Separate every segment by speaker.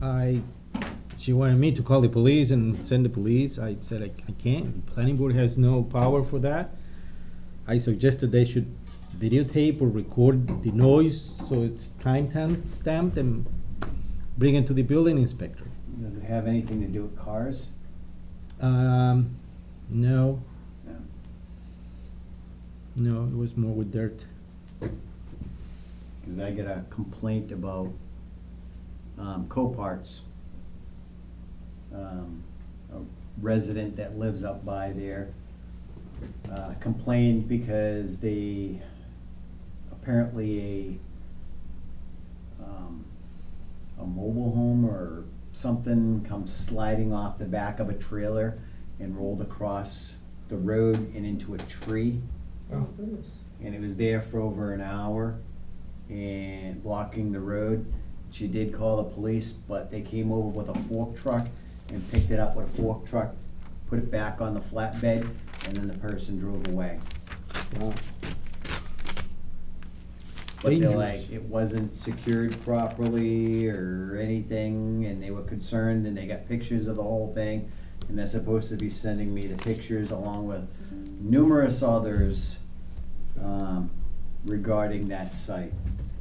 Speaker 1: I, she wanted me to call the police and send the police. I said I I can't. Planning board has no power for that. I suggested they should videotape or record the noise so it's time tam- stamped and bring it to the building inspector.
Speaker 2: Does it have anything to do with cars?
Speaker 1: Um, no,
Speaker 2: No.
Speaker 1: no, it was more with dirt.
Speaker 2: Cause I get a complaint about, um, Coparts. Um, a resident that lives up by there, uh, complained because they, apparently a, um, a mobile home or something comes sliding off the back of a trailer and rolled across the road and into a tree
Speaker 1: Oh.
Speaker 2: and it was there for over an hour and blocking the road. She did call the police, but they came over with a fork truck and picked it up with a fork truck, put it back on the flatbed, and then the person drove away.
Speaker 1: Wow.
Speaker 2: But they're
Speaker 1: Dangerous.
Speaker 2: like, it wasn't secured properly or anything, and they were concerned, and they got pictures of the whole thing. And they're supposed to be sending me the pictures along with numerous others, um, regarding that site.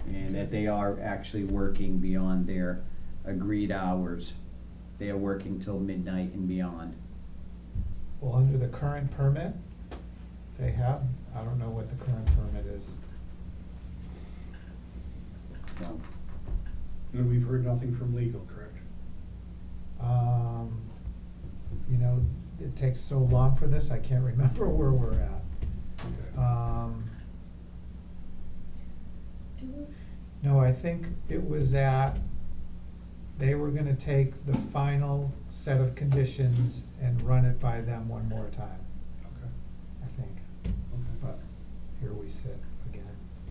Speaker 2: And that they are actually working beyond their agreed hours. They are working till midnight and beyond.
Speaker 3: Well, under the current permit they have, I don't know what the current permit is.
Speaker 2: So,
Speaker 4: And we've heard nothing from legal, correct?
Speaker 3: Um, you know, it takes so long for this, I can't remember where we're at.
Speaker 4: Okay.
Speaker 3: Um, no, I think it was at, they were gonna take the final set of conditions and run it by them one more time,
Speaker 4: Okay.
Speaker 3: I think. But here we sit again,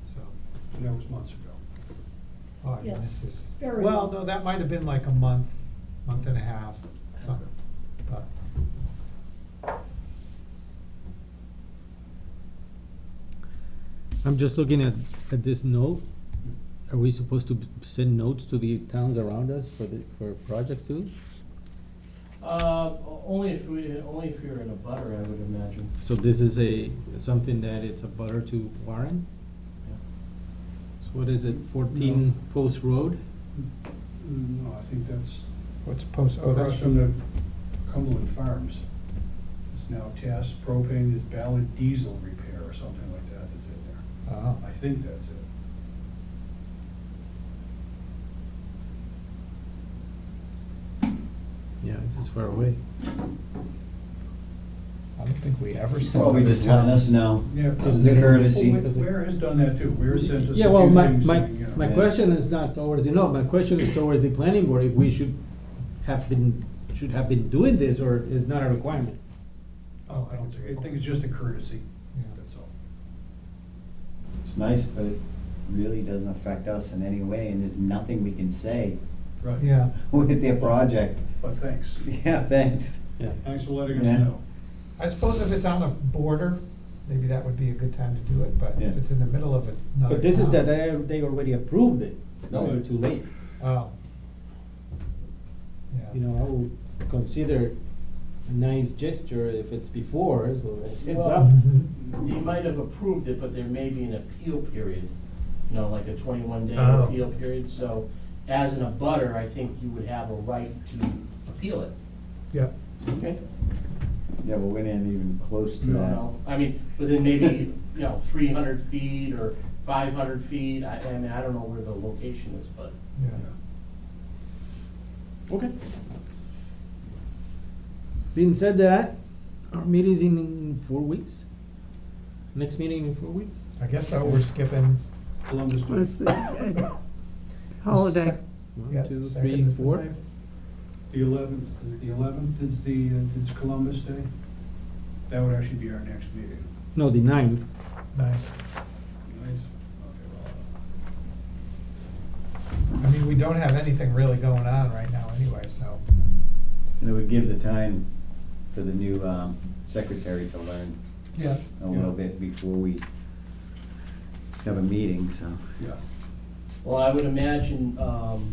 Speaker 3: so.
Speaker 4: And that was months ago.
Speaker 3: Oh, I mean,
Speaker 5: Yes,
Speaker 3: this is,
Speaker 5: very
Speaker 3: well,
Speaker 5: long.
Speaker 3: no, that might have been like a month, month and a half, something, but.
Speaker 1: I'm just looking at, at this note. Are we supposed to send notes to the towns around us for the, for projects too?
Speaker 6: Uh, o- only if we, only if you're in a butter, I would imagine.
Speaker 1: So this is a, something that it's a butter to Warren?
Speaker 6: Yeah.
Speaker 1: So what is it, fourteen Post Road?
Speaker 4: Mm, No, I think that's
Speaker 3: What's post, oh,
Speaker 4: across
Speaker 3: that's
Speaker 4: from
Speaker 3: from,
Speaker 4: the Cumberland Farms. It's now TAS propane, it's Ballard Diesel Repair or something like that that's in there.
Speaker 3: oh,
Speaker 4: I think that's it.
Speaker 1: Yeah, this is far away.
Speaker 3: I don't think we ever sent.
Speaker 2: Probably
Speaker 3: them
Speaker 2: just letting us know.
Speaker 4: Yeah.
Speaker 2: As a courtesy.
Speaker 4: Ware has done that too. Ware sent us a few things.
Speaker 1: Yeah, well, my, my,
Speaker 4: saying, you know,
Speaker 1: my question is not towards the note, my question is towards the planning board, if we should have been, should have been doing this, or is not a requirement?
Speaker 4: Oh, I don't think, I think it's just a courtesy,
Speaker 3: Yeah.
Speaker 4: that's all.
Speaker 2: It's nice, but it really doesn't affect us in any way, and there's nothing we can say
Speaker 4: Right.
Speaker 3: Yeah,
Speaker 2: with their project.
Speaker 4: But thanks.
Speaker 2: Yeah, thanks.
Speaker 1: Yeah.
Speaker 4: Thanks for letting us
Speaker 2: Yeah.
Speaker 4: know.
Speaker 3: I suppose if it's on a border, maybe that would be a good time to do it, but if
Speaker 2: Yeah.
Speaker 3: it's in the middle of another.
Speaker 1: But this is
Speaker 3: town-
Speaker 1: that, they, they already approved it, now we're too late.
Speaker 3: Oh.
Speaker 1: You
Speaker 3: Yeah,
Speaker 1: know, I would consider a nice gesture if it's before, so it's heads
Speaker 6: Well-
Speaker 1: up.
Speaker 3: Mm-hmm.
Speaker 6: They might have approved it, but there may be an appeal period, you know, like a twenty-one day
Speaker 3: Oh.
Speaker 6: appeal period. So as in a butter, I think you would have a right to appeal it.
Speaker 3: yeah,
Speaker 6: Okay.
Speaker 2: Yeah, but we're not even close to
Speaker 6: You
Speaker 2: that.
Speaker 6: know, I mean, within maybe, you know, three hundred feet or five hundred feet. I, I mean, I don't know where the location is, but.
Speaker 3: yeah.
Speaker 1: Okay. Being said that, our meeting's in, in four weeks. Next meeting in four weeks?
Speaker 3: I guess so, we're skipping.
Speaker 4: Columbus Day.
Speaker 7: was the uh, holiday.
Speaker 3: Yeah,
Speaker 1: One, two,
Speaker 3: second
Speaker 1: three,
Speaker 3: is the
Speaker 1: four.
Speaker 3: ninth.
Speaker 4: The eleventh, the eleventh is the, uh, it's Columbus Day. That would actually be our next meeting.
Speaker 1: No, the ninth.
Speaker 3: Ninth.
Speaker 4: Nice.
Speaker 3: I
Speaker 4: Okay,
Speaker 3: mean, we don't have anything really going on right now anyway, so.
Speaker 2: And it would give the time for the new um, secretary to learn
Speaker 3: Yeah.
Speaker 2: a little bit before we have a meeting, so.
Speaker 4: well, Yeah.
Speaker 6: Well, I would imagine, um,